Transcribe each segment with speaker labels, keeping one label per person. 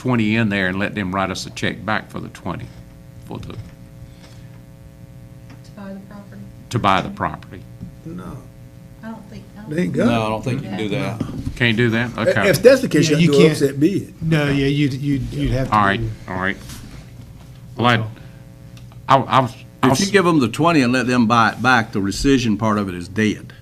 Speaker 1: 20 in there and let them write us a check back for the 20, for the,
Speaker 2: to buy the property?
Speaker 1: to buy the property.
Speaker 3: No,
Speaker 2: I don't think, I don't
Speaker 3: they ain't
Speaker 4: No,
Speaker 3: got
Speaker 4: I don't think you can do that.
Speaker 1: Can't do that?
Speaker 3: it.
Speaker 1: Okay.
Speaker 3: If that's the case,
Speaker 5: Yeah,
Speaker 3: you have
Speaker 5: you
Speaker 3: to do an
Speaker 5: can't.
Speaker 3: upset bid.
Speaker 5: No, yeah, you'd, you'd, you'd have to.
Speaker 1: All right,
Speaker 5: do-
Speaker 1: all right. Well, I, I I was, I
Speaker 4: If you
Speaker 1: was,
Speaker 4: give them the 20 and let them buy it back, the rescission part of it is dead.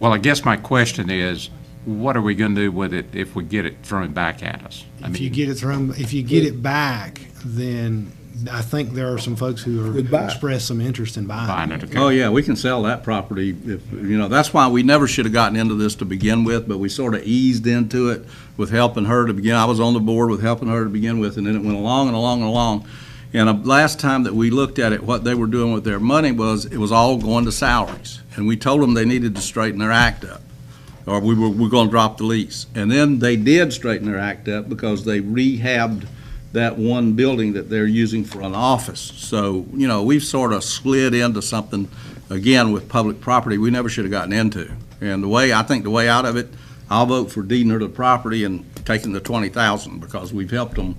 Speaker 1: well, I guess my question is, what are we going to do with it if we get it thrown back at us? I
Speaker 5: If you
Speaker 1: mean,
Speaker 5: get it thrown, if you get it back, then I think there are some folks who
Speaker 3: Would buy
Speaker 5: are
Speaker 3: it.
Speaker 5: express some interest in buying.
Speaker 1: buying it, okay.
Speaker 4: Oh, yeah, we can sell that property if, you know, that's why we never should have gotten into this to begin with, but we sort of eased into it with helping her to begin. I was on the board with helping her to begin with, and then it went along and along and along. And uh, last time that we looked at it, what they were doing with their money was, it was all going to salaries. And we told them they needed to straighten their act up, or we were, we're going to drop the lease. And then they did straighten their act up because they rehabbed that one building that they're using for an office. So, you know, we've sort of slid into something, again, with public property we never should have gotten into. And the way, I think the way out of it, I'll vote for deeding her the property and taking the twenty thousand, because we've helped them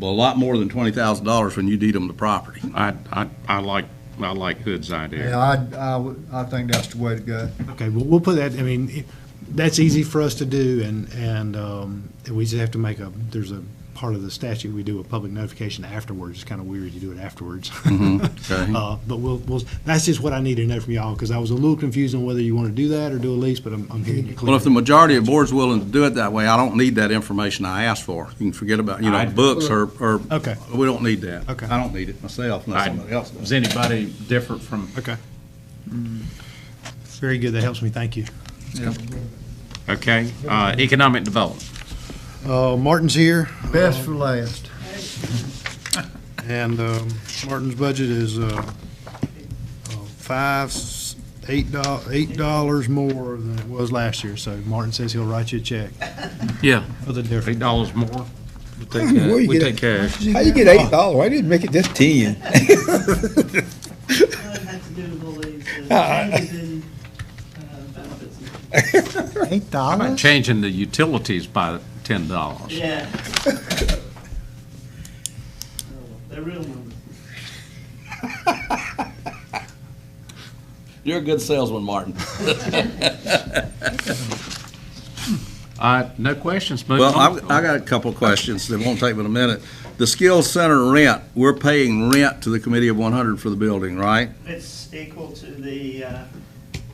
Speaker 4: a lot more than twenty thousand dollars when you deed them the property.
Speaker 1: I, I, I like, I like Hood's idea.
Speaker 6: Yeah, I, I would- I think that's the way to go.
Speaker 5: Okay, well, we'll put that, I mean, it- that's easy for us to do, and, and um, we just have to make a, there's a part of the statute, we do a public notification afterwards. It's kind of weird you do it afterwards.
Speaker 4: okay.
Speaker 5: Uh, But we'll, we'll, that's just what I needed to know from y'all, because I was a little confused on whether you want to do that or do a lease, but I'm, I'm hearing you clearly.
Speaker 4: Well, if the majority of board's willing to do it that way, I don't need that information I asked for. You can forget about, you know,
Speaker 1: I'd-
Speaker 4: books or, or.
Speaker 5: Okay.
Speaker 4: We don't need that.
Speaker 5: Okay.
Speaker 4: I don't need it myself, unless
Speaker 1: I'd-
Speaker 4: somebody else does.
Speaker 1: Is anybody different from,
Speaker 5: Okay. Very good, that helps me, thank you.
Speaker 1: okay, uh, economic development?
Speaker 5: Uh, Martin's here,
Speaker 6: Best for last.
Speaker 5: and um, Martin's budget is uh, uh, five, s- eight dollars, eight dollars more than it was last year, so Martin says he'll write you a check
Speaker 1: Yeah.
Speaker 5: for the difference.
Speaker 1: Eight dollars more?
Speaker 3: Where you
Speaker 7: We
Speaker 3: get
Speaker 7: take
Speaker 3: it?
Speaker 7: cash.
Speaker 3: How you get eight dollars? I didn't make it just ten.
Speaker 8: Well, it had to do with the changes in uh, benefits.
Speaker 6: Eight
Speaker 1: How
Speaker 6: dollars?
Speaker 1: about changing the utilities by ten dollars?
Speaker 8: Yeah. Oh, They're real numbers.
Speaker 4: You're a good salesman, Martin.
Speaker 1: Uh, no questions, move
Speaker 4: Well,
Speaker 1: on.
Speaker 4: I've, I got a couple of questions that won't take but a minute. The skills center rent, we're paying rent to the committee of one hundred for the building, right?
Speaker 8: It's equal to the, uh,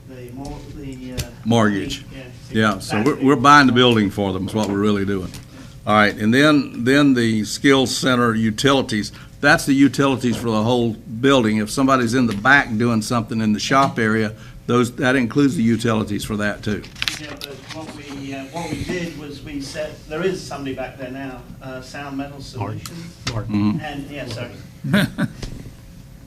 Speaker 8: the mor, the. uh,
Speaker 4: Mortgage.
Speaker 8: Yeah. it's
Speaker 4: Yeah, so we're,
Speaker 8: exactly-
Speaker 4: we're buying the building for them is what we're really doing. All right, and then, then the skills center utilities, that's the utilities for the whole building. If somebody's in the back doing something in the shop area, those, that includes the utilities for that too.
Speaker 8: Yeah, but what we, uh, what we did was we set, there is somebody back there now, uh, Sound Metal Solutions.
Speaker 5: Martin.
Speaker 8: And, yeah, sorry.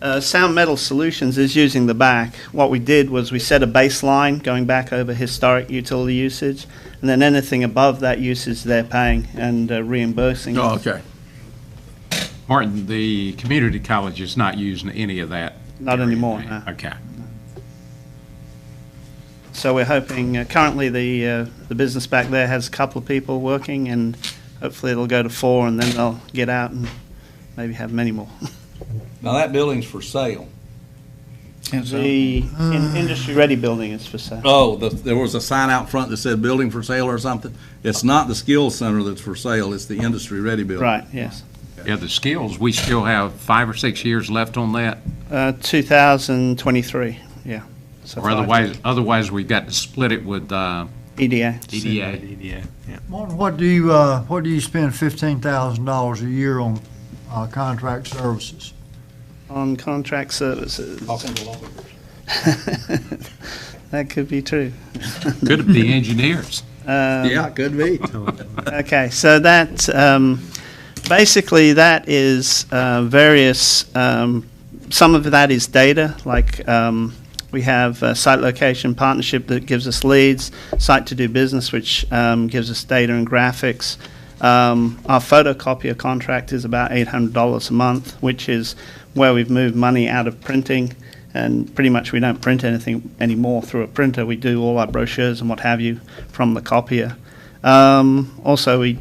Speaker 8: Uh, Sound Metal Solutions is using the back. What we did was we set a baseline going back over historic utility usage, and then anything above that usage they're paying and uh, reimbursing.
Speaker 4: Oh,
Speaker 8: us.
Speaker 4: okay.
Speaker 1: Martin, the community college is not using any of that.
Speaker 8: Not anymore,
Speaker 1: area.
Speaker 8: no.
Speaker 1: Okay.
Speaker 8: So we're hoping, uh, currently the, uh, the business back there has a couple of people working, and hopefully it'll go to four, and then they'll get out and maybe have many more.
Speaker 4: Now, that building's for sale.
Speaker 8: The in- industry-ready building is for sale.
Speaker 4: Oh, the, there was a sign out front that said building for sale or something? It's not the skills center that's for sale, it's the industry-ready building.
Speaker 8: Right, yes.
Speaker 1: Yeah, the skills, we still have five or six years left on that,
Speaker 8: Uh, 2023, yeah. So
Speaker 1: or
Speaker 8: five
Speaker 1: otherwise, otherwise we've got to split it with, uh,
Speaker 8: EDA.
Speaker 1: DDA.
Speaker 6: Martin, what do you, uh, what do you spend fifteen thousand dollars a year on, uh, contract services?
Speaker 8: on contract services.
Speaker 4: Talking to lawyers.
Speaker 8: That could be true.
Speaker 1: Could it be engineers?
Speaker 4: Yeah, it could be.
Speaker 8: Okay, so that, um, basically, that is uh, various, um, some of that is data, like um, we have a site location partnership that gives us leads, site to do business, which um, gives us data and graphics. Um, Our photocopier contract is about $800 a month, which is where we've moved money out of printing, and pretty much we don't print anything anymore through a printer. We do all our brochures and what have you from the copier. Um, also, we